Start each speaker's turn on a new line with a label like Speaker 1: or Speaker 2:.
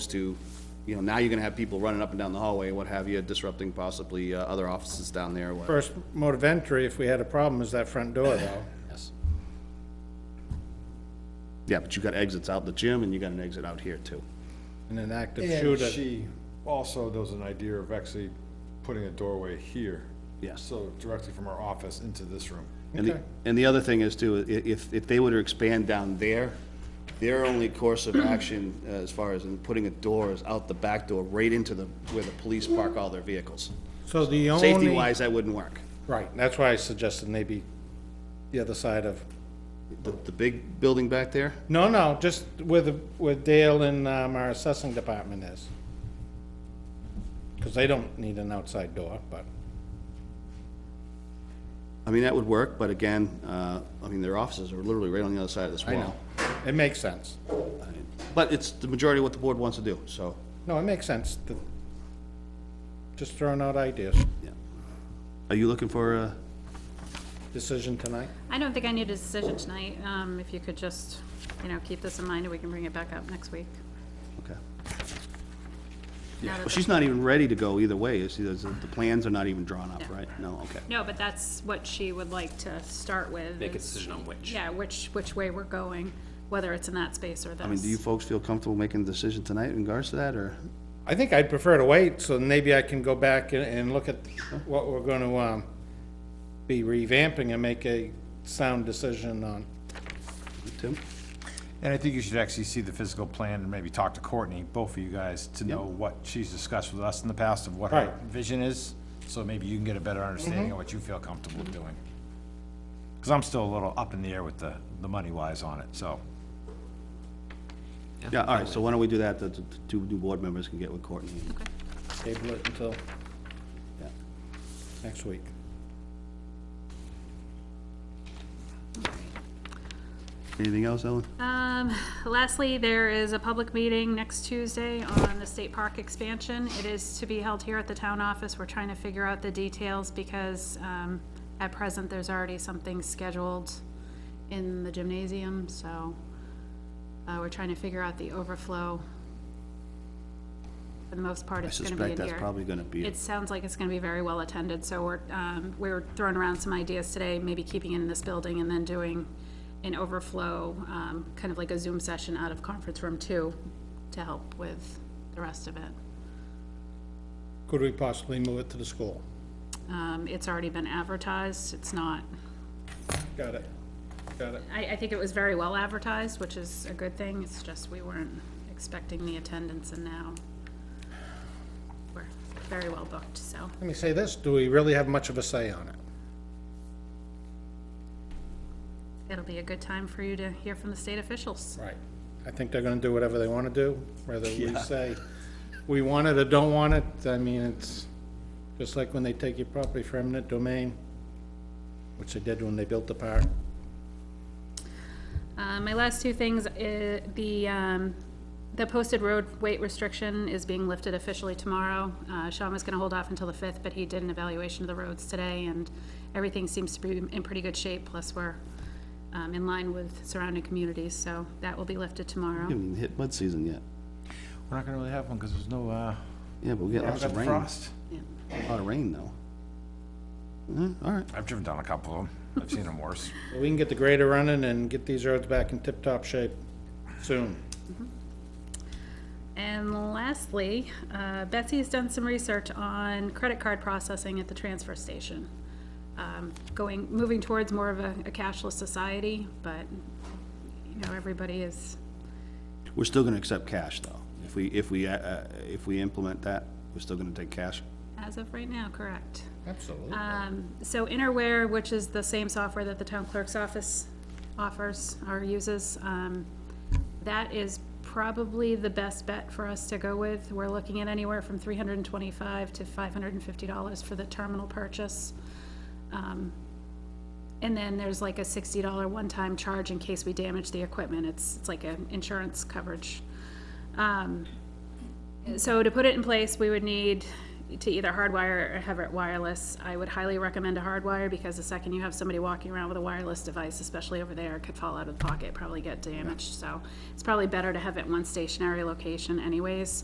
Speaker 1: to, you know, now you're gonna have people running up and down the hallway, what have you, disrupting possibly uh, other offices down there, what.
Speaker 2: First mode of entry, if we had a problem, is that front door, though.
Speaker 1: Yes. Yeah, but you got exits out the gym and you got an exit out here too.
Speaker 2: And an active
Speaker 3: And
Speaker 2: shooter.
Speaker 3: she also does an idea of actually putting a doorway here.
Speaker 1: Yes.
Speaker 3: So directly from our office into this room.
Speaker 1: And the,
Speaker 2: Okay.
Speaker 1: and the other thing is too, i- if, if they were to expand down there, their only course of action uh, as far as in putting a door is out the back door, right into the, where the police park all their vehicles.
Speaker 2: So the only,
Speaker 1: Safety-wise, that wouldn't work.
Speaker 2: right, that's why I suggested maybe the other side of,
Speaker 1: The, the big building back there,
Speaker 2: no, no, just where the, where Dale and, um, our assessing department is. Cause they don't need an outside door, but,
Speaker 1: I mean, that would work, but again, uh, I mean, their offices are literally right on the other side of this
Speaker 2: I know,
Speaker 1: wall.
Speaker 2: it makes sense.
Speaker 1: But it's the majority of what the board wants to do, so,
Speaker 2: No, it makes sense, The- just throwing out ideas,
Speaker 1: yeah. Are you looking for uh, a,
Speaker 2: decision tonight?
Speaker 4: I don't think I need a decision tonight. Um, if you could just, you know, keep this in mind, and we can bring it back up next week.
Speaker 1: okay.
Speaker 4: Now that
Speaker 1: Well,
Speaker 4: the-
Speaker 1: she's not even ready to go either way, is she, the the plans are not even drawn up,
Speaker 4: No.
Speaker 1: right? No, okay.
Speaker 4: No, but that's what she would like to start with.
Speaker 5: Make a
Speaker 4: is-
Speaker 5: decision on which.
Speaker 4: Yeah, which, which way we're going, whether it's in that space or this.
Speaker 1: I mean, do you folks feel comfortable making a decision tonight in regards to that, or?
Speaker 2: I think I'd prefer to wait, so maybe I can go back and, and look at what we're gonna, um, be revamping and make a sound decision on.
Speaker 1: Tim?
Speaker 6: And I think you should actually see the physical plan and maybe talk to Courtney, both of you guys, to know
Speaker 1: Yep.
Speaker 6: what she's discussed with us in the past of what
Speaker 2: Right.
Speaker 6: her vision is. So maybe you can get a better understanding of what you feel comfortable doing. Because I'm still a little up in the air with the, the money wise on it, so.
Speaker 1: Yeah, all right, so why don't we do that, the the two new board members can get with Courtney.
Speaker 4: Okay.
Speaker 2: Table it until
Speaker 1: Yeah.
Speaker 2: next week.
Speaker 1: Anything else, Ellen?
Speaker 4: Um, lastly, there is a public meeting next Tuesday on the state park expansion. It is to be held here at the town office. We're trying to figure out the details because, um, at present, there's already something scheduled in the gymnasium, so, uh, we're trying to figure out the overflow. For the most part,
Speaker 1: I
Speaker 4: it's gonna be in
Speaker 1: suspect
Speaker 4: here.
Speaker 1: that's probably gonna be,
Speaker 4: It
Speaker 1: it.
Speaker 4: sounds like it's gonna be very well attended, so we're, um, we're throwing around some ideas today, maybe keeping it in this building and then doing an overflow, um, kind of like a Zoom session out of conference room two to help with the rest of it.
Speaker 2: Could we possibly move it to the school?
Speaker 4: Um, it's already been advertised, it's not,
Speaker 2: Got it, got it.
Speaker 4: I, I think it was very well advertised, which is a good thing, it's just we weren't expecting the attendance and now we're very well booked, so.
Speaker 2: Let me say this, do we really have much of a say on it?
Speaker 4: It'll be a good time for you to hear from the state officials.
Speaker 2: Right. I think they're gonna do whatever they wanna do, whether we say we want it or don't want it, I mean, it's just like when they take your property for eminent domain, which they did when they built the park.
Speaker 4: Uh, my last two things, i the, um, the posted road weight restriction is being lifted officially tomorrow. Uh, Sean was gonna hold off until the fifth, but he did an evaluation of the roads today, and everything seems to be in pretty good shape, plus we're, um, in line with surrounding communities, so that will be lifted tomorrow.
Speaker 1: haven't even hit mud season yet.
Speaker 6: We're not gonna really have one because there's no, uh,
Speaker 1: Yeah, but we get
Speaker 6: we haven't
Speaker 1: lots
Speaker 6: got
Speaker 1: of
Speaker 6: the
Speaker 1: rain,
Speaker 6: frost.
Speaker 1: a lot of rain, though. Mm, All right,
Speaker 6: I've driven down a couple of them. I've seen them worse.
Speaker 2: We can get the grader running and get these roads back in tip-top shape soon.
Speaker 4: And lastly, uh, Betsy has done some research on credit card processing at the transfer station. Um, Going, moving towards more of a a cashless society, but, you know, everybody is
Speaker 1: we're still gonna accept cash, though. If we, if we, uh, uh, if we implement that, we're still gonna take cash.
Speaker 4: As of right now, correct.
Speaker 2: Absolutely.
Speaker 4: Um, So Innerware, which is the same software that the town clerk's office offers or uses, um, that is probably the best bet for us to go with. We're looking at anywhere from three hundred and twenty-five to five hundred and fifty dollars for the terminal purchase. Um, And then there's like a sixty dollar one-time charge in case we damage the equipment. It's, it's like an insurance coverage. Um, so to put it in place, we would need to either hardwire or have it wireless. I would highly recommend a hardwire because the second you have somebody walking around with a wireless device, especially over there, it could fall out of the pocket, probably get damaged. So it's probably better to have it in one stationary location anyways.